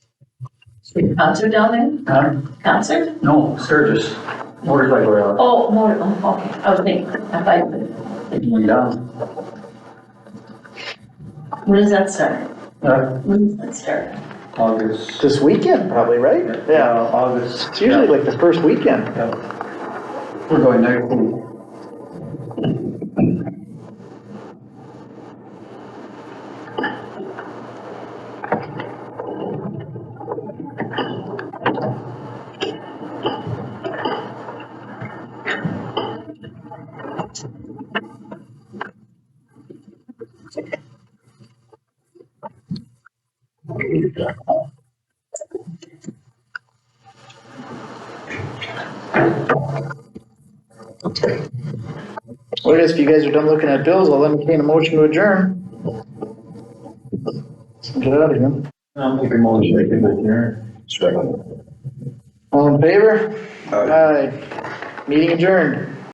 Big concert down Huh? there? Concert? No, Sturgis, motorcycle rally. Oh, more, oh, okay, I was thinking, I thought, Taking down. when does that start? Uh, When does that start? August. This weekend, probably, right? Yeah, August. it's usually like the first weekend. Yeah. We're going next week. Well, I guess if you guys are done looking at bills, I'll entertain a motion to adjourn. Let's Get out of here. I'm hoping more than they can here. All in favor? Aye. Meeting adjourned.